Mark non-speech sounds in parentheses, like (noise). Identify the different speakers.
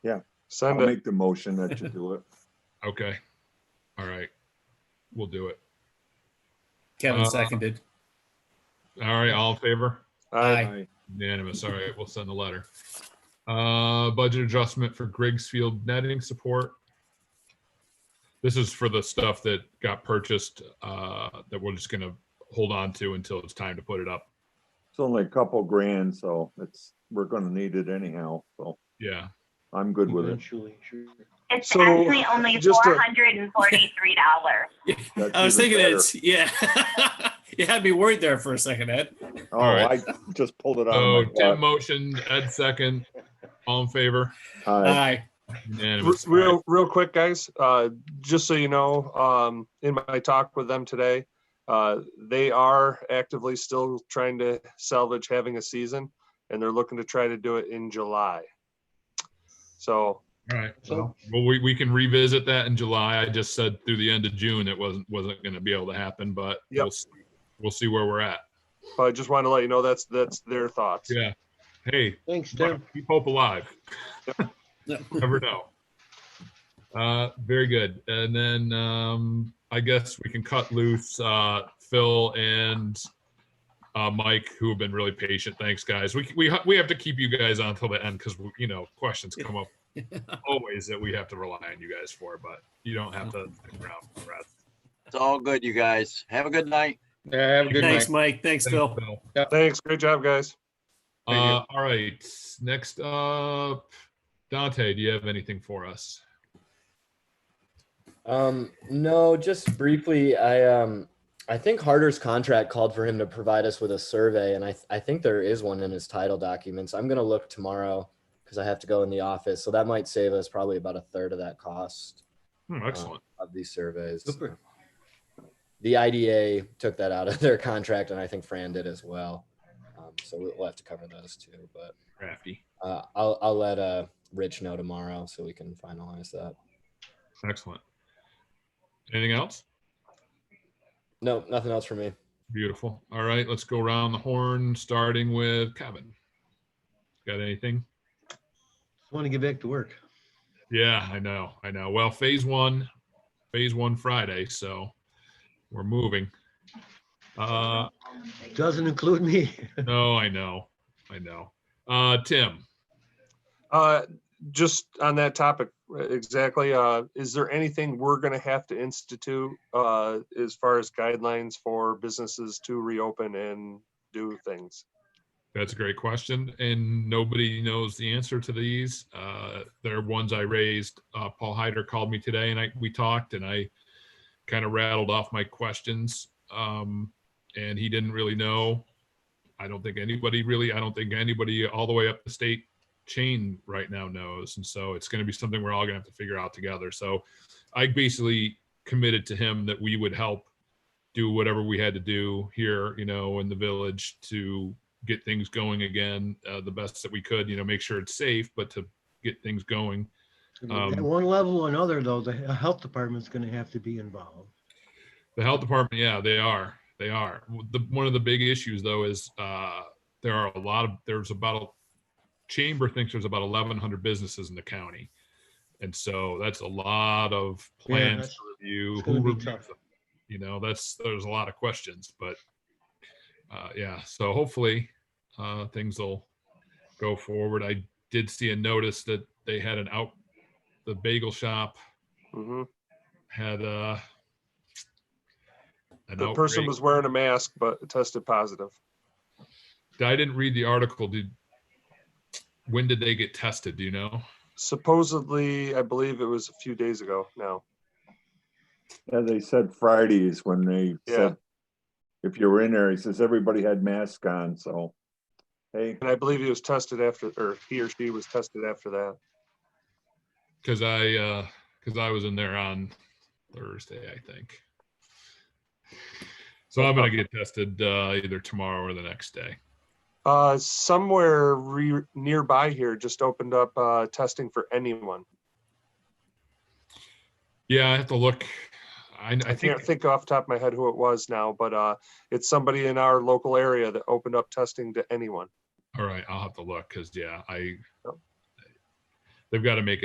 Speaker 1: Send
Speaker 2: I'll
Speaker 1: it.
Speaker 2: make the motion that you do
Speaker 1: (laughs)
Speaker 2: it.
Speaker 3: Okay. All right. We'll do it.
Speaker 4: Kevin
Speaker 3: Uh,
Speaker 4: seconded.
Speaker 3: All right. All in favor?
Speaker 1: Aye.
Speaker 4: Aye.
Speaker 2: Aye.
Speaker 3: Unanimous. All right. We'll send the letter. Uh, budget adjustment for Griggs Field netting support. This is for the stuff that got purchased, uh, that we're just gonna hold on to until it's time to put it up.
Speaker 2: It's only a couple grand, so it's, we're gonna need it anyhow, so
Speaker 3: Yeah.
Speaker 2: I'm good with it.
Speaker 5: It's
Speaker 1: So,
Speaker 5: actually only
Speaker 1: just a-
Speaker 5: four hundred and forty-three dollars.
Speaker 2: That's
Speaker 4: Mm-hmm. I was
Speaker 2: even
Speaker 4: thinking it's yeah. (laughs) you had me worried there for a second, Ed.
Speaker 2: Oh, I
Speaker 3: Alright.
Speaker 2: just pulled it out
Speaker 4: Oh,
Speaker 2: of
Speaker 3: So
Speaker 2: Oh my
Speaker 3: Tim motioned, Ed second. All in favor?
Speaker 2: wallet.
Speaker 4: Aye.
Speaker 1: R-
Speaker 3: Unanimous. All right.
Speaker 1: Real, real quick, guys, uh, just so you know, um, in my talk with them today, uh, they are actively still trying to salvage having a season and they're looking to try to do it in July. So,
Speaker 3: All right. Well, we, we can revisit that in July. I just said through the end of June, it wasn't, wasn't going to be able to happen, but
Speaker 1: Yep.
Speaker 3: we'll, s- we'll see where we're at.
Speaker 1: but I just want to let you know that's, that's their thoughts.
Speaker 3: Yeah. Hey,
Speaker 6: Thanks, Tim.
Speaker 3: keep hope alive.
Speaker 4: Yeah.
Speaker 3: Never know. Uh, very good. And then, um, I guess we can cut loose, uh, Phil and, uh, Mike, who have been really patient. Thanks, guys. We, we, ha- we have to keep you guys on until the end because, you know, questions come
Speaker 6: (laughs)
Speaker 3: up always that we have to rely on you guys for, but you don't have to stick around for the rest.
Speaker 7: It's all good, you guys. Have a good night.
Speaker 6: Yeah, Have a good night.
Speaker 4: Thanks, Mike. Thanks, Phil.
Speaker 1: Thanks. Great job, guys.
Speaker 3: Uh,
Speaker 6: Thank you.
Speaker 3: all right, next up, Dante, do you have anything for us?
Speaker 8: Um, no, just briefly, I um I think Harder's contract called for him to provide us with a survey, and I I think there is one in his title documents. I'm gonna look tomorrow because I have to go in the office, so that might save us probably about a third of that cost
Speaker 3: Hmm, excellent.
Speaker 8: of these surveys.
Speaker 6: Super.
Speaker 8: The IDA took that out of their contract, and I think Fran did as well. Um, so we- we'll have to cover those too. But
Speaker 3: Crafty.
Speaker 8: uh, I'll I'll let uh Rich know tomorrow so we can finalize that.
Speaker 3: Excellent. Anything else?
Speaker 8: No, nothing else for me.
Speaker 3: Beautiful. All right, let's go around the horn, starting with Kevin. Got anything?
Speaker 6: Want to get back to work.
Speaker 3: Yeah, I know, I know. Well, phase one, phase one Friday, so we're moving. Uh,
Speaker 6: Doesn't include me.
Speaker 3: no, I know, I know. Uh, Tim,
Speaker 1: Uh, just on that topic, uh, exactly, uh, is there anything we're gonna have to institute, uh, as far as guidelines for businesses to reopen and do things?
Speaker 3: That's a great question, and nobody knows the answer to these. Uh, they're ones I raised. Uh, Paul Hyder called me today, and I we talked, and I kind of rattled off my questions, um, and he didn't really know. I don't think anybody really. I don't think anybody all the way up the state chain right now knows, and so it's going to be something we're all going to have to figure out together. So, I basically committed to him that we would help do whatever we had to do here, you know, in the village to get things going again uh, the best that we could you know make sure it's safe but to get things going Um,
Speaker 6: At one level or another, though, the health department's going to have to be involved.
Speaker 3: the health department yeah they are they are the, one of the big issues though is uh, there are a lot of there's about chamber thinks there's about 1100 businesses in the county and so that's a lot of
Speaker 6: Yeah,
Speaker 3: plans
Speaker 6: that's-
Speaker 3: to review
Speaker 6: it's
Speaker 3: who
Speaker 6: gonna be
Speaker 3: reviews
Speaker 6: tough.
Speaker 3: them. you know that's there's a lot of questions but uh, yeah so hopefully uh, things will go forward i did see a notice that they had an out the bagel shop
Speaker 1: Mhm.
Speaker 3: had uh an
Speaker 1: The person
Speaker 3: outbreak.
Speaker 1: was wearing a mask but tested positive.
Speaker 3: I didn't read the article. Did when did they get tested? Do you know?
Speaker 1: Supposedly, I believe it was a few days ago now.
Speaker 2: Yeah, they said Fridays when they
Speaker 1: Yeah.
Speaker 2: said, if you were in there, he says, everybody had masks on, so. Hey,
Speaker 1: And I believe he was tested after, or he or she was tested after that.
Speaker 3: Because I uh because I was in there on Thursday, I think. So I'm gonna get tested uh either tomorrow or the next day.
Speaker 1: Uh, somewhere re- nearby here just opened up, uh, testing for anyone.
Speaker 3: Yeah, I have to look. I, I
Speaker 1: I
Speaker 3: think
Speaker 1: can't think off the top of my head who it was now, but, uh, it's somebody in our local area that opened up testing to anyone.
Speaker 3: all right, I'll have to look because yeah, I
Speaker 1: Yep.
Speaker 3: they've got to make